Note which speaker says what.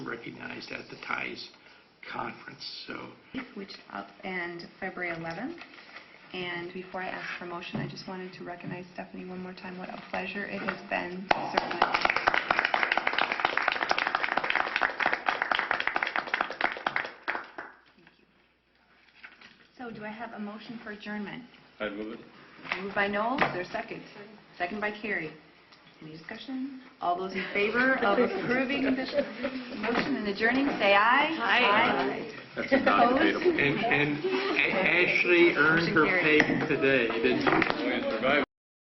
Speaker 1: recognized at the TIES conference. So
Speaker 2: which is up, and February 11th. And before I ask for motion, I just wanted to recognize Stephanie one more time. What a pleasure it has been to serve my office. Thank you. So do I have a motion for adjournment?
Speaker 3: I move it.
Speaker 2: Moved by Noel, is there a second? Second by Carrie. Any discussion? All those in favor of approving the motion and adjourning, say aye. Aye.
Speaker 3: That's non-debatable.
Speaker 1: And and A- Ashley earned her pay today, didn't she?
Speaker 3: Survive.